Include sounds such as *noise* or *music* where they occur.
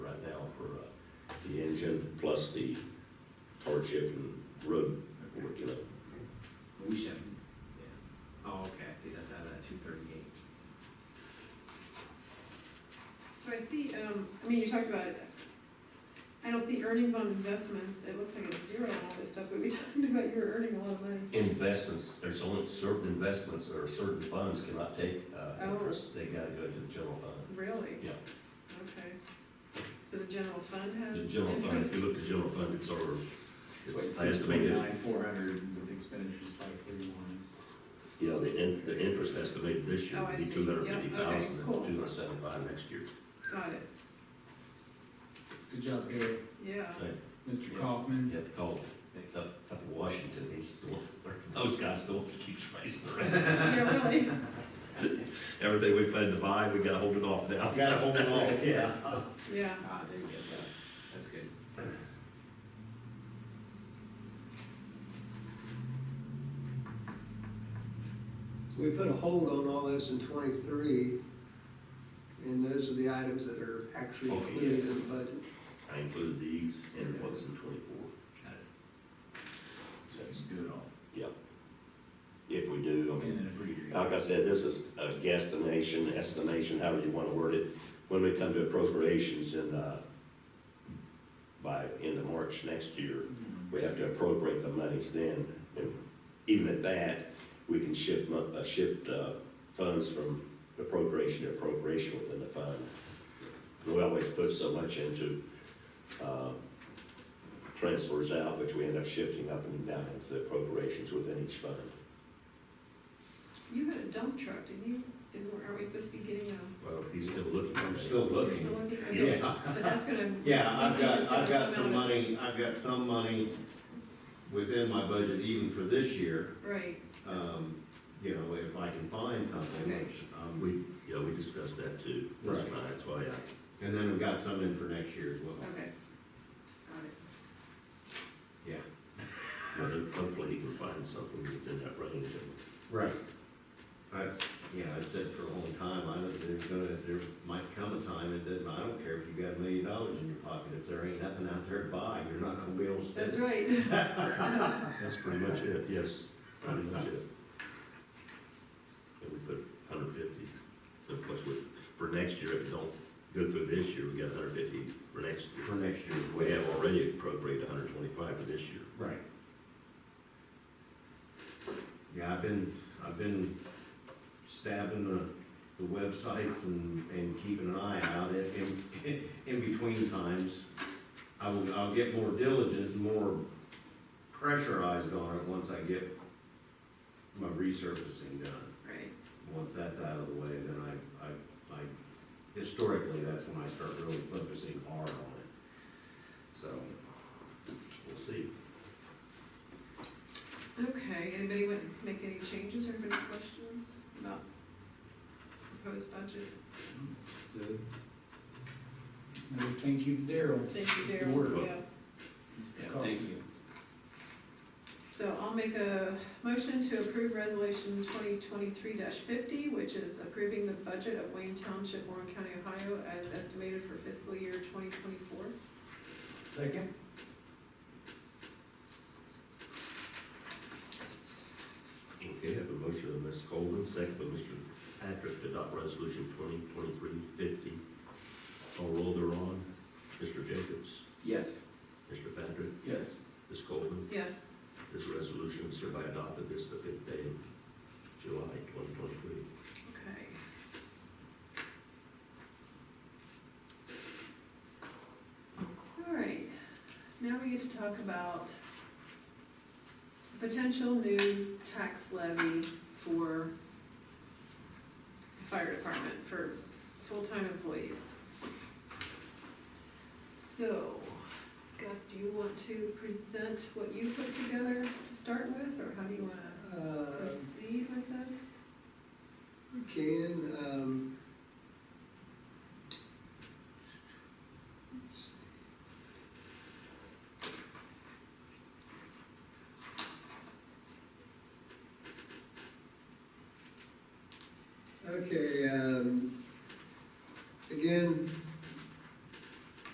region uh, plus the hardship and road work, you know. We should, yeah. Oh, okay, I see, that's out of that two thirty-eight. So I see, um, I mean, you talked about, I don't see earnings on investments, it looks like it's zero on all this stuff, but we *laughs* talked about you're earning a lot of money. Investments, there's only certain investments or certain funds cannot take, uh, Oh. interest, they gotta go to the general fund. Really? Yeah. Okay. So the general fund The has? general fund, if interest? you look at general fund, it's over, It's like it's estimated, sixty-nine, four hundred with expenditures five thirty-one. yeah, the in, the interest estimated this year Oh, I would be see. two hundred fifty Yeah, okay, thousand, two cool. hundred seventy-five next year. Got it, Good job, Gary. yeah. *laughs* Mr. Kaufman. You have to call up, up in Washington, he's the one, *laughs* those guys still keeps raising the rent. Yeah, really, Everything we planned to buy, we gotta hold it off now. *laughs* Gotta hold it off, yeah. yeah, Ah, there you go, that's, that's good. So we put a hold on all this in twenty-three, and those are the items that are actually Okay, included in yes. the budget. I included these in what's in twenty-four. Got it. Let's do it all. If we do, I mean, And then a breeder. like I said, this is a guesstimation, estimation, however you wanna word it. When we come to appropriations in, uh, by end of March next year, Mhm. we have to appropriate the monies then. And Even at that, we can shift, mon- uh, shift, uh, funds from appropriation to appropriation within the fund. We always put so much into, uh, transfers out, which we end up shifting up and down into appropriations within each fund. you had a dump truck, didn't you, didn't, are we supposed to be getting a, Well, he's still looking. I'm still still looking. looking? Okay. Yeah, But that's gonna. yeah, I've that's got, I've gonna got come some out of- money, I've got some money within my budget even for this year. Right, Um, you know, if I can find something, which, um, We, yeah, we discussed that too. That's Right. fine, that's why I, and then we've got some in for next year as well. okay. Got it. Yeah. well, hopefully he can find something within that range. Right. That's, you know, I've said for a long time, I don't, there's gonna, there might come a time, it doesn't, I don't care if you got a million dollars in your pocket, if there ain't nothing out there to buy, you're not gonna be able to spend That's it. right. That's pretty much it, yes, pretty much it. And we put hundred fifty, and plus we, for next year, if it don't go through this year, we got hundred fifty for next year. *laughs* For next year. We have already appropriated hundred twenty-five for this year. Right. Yeah, I've been, I've been stabbing the, the websites and, and keeping an eye out in, in, in between times. I will, I'll get more diligent, more pressurized on it once I get my resurfacing done. Right, Once that's out of the way, then I, I, I, historically, that's when I start really focusing hard on it. So, we'll see. okay, anybody want to make any changes or have any questions about proposed budget? Let's do it. Another thank you to Daryl. Thank you, Good work. Daryl, yes. Yeah, Kaufman. thank you. So I'll make a motion to approve resolution twenty twenty-three fifty, which is approving the budget of Wayne Township, Warren County, Ohio, as estimated for fiscal year twenty twenty-four. Second? Okay, I have a motion by Ms. Coleman, second by Mr. Patrick to adopt resolution twenty twenty-three fifty. Call roll thereon. Mr. Jacobs, Yes. Mr. Patrick, Yes. Ms. Coleman. Yes, This resolution is hereby adopted this the fifth day of July twenty twenty-three. okay. All right, now we get to talk about potential new tax levy for the fire department for full-time employees. So, Gus, do you want to present what you put together to start with, or how do you wanna Uh, proceed with this? We can, um. Okay, um,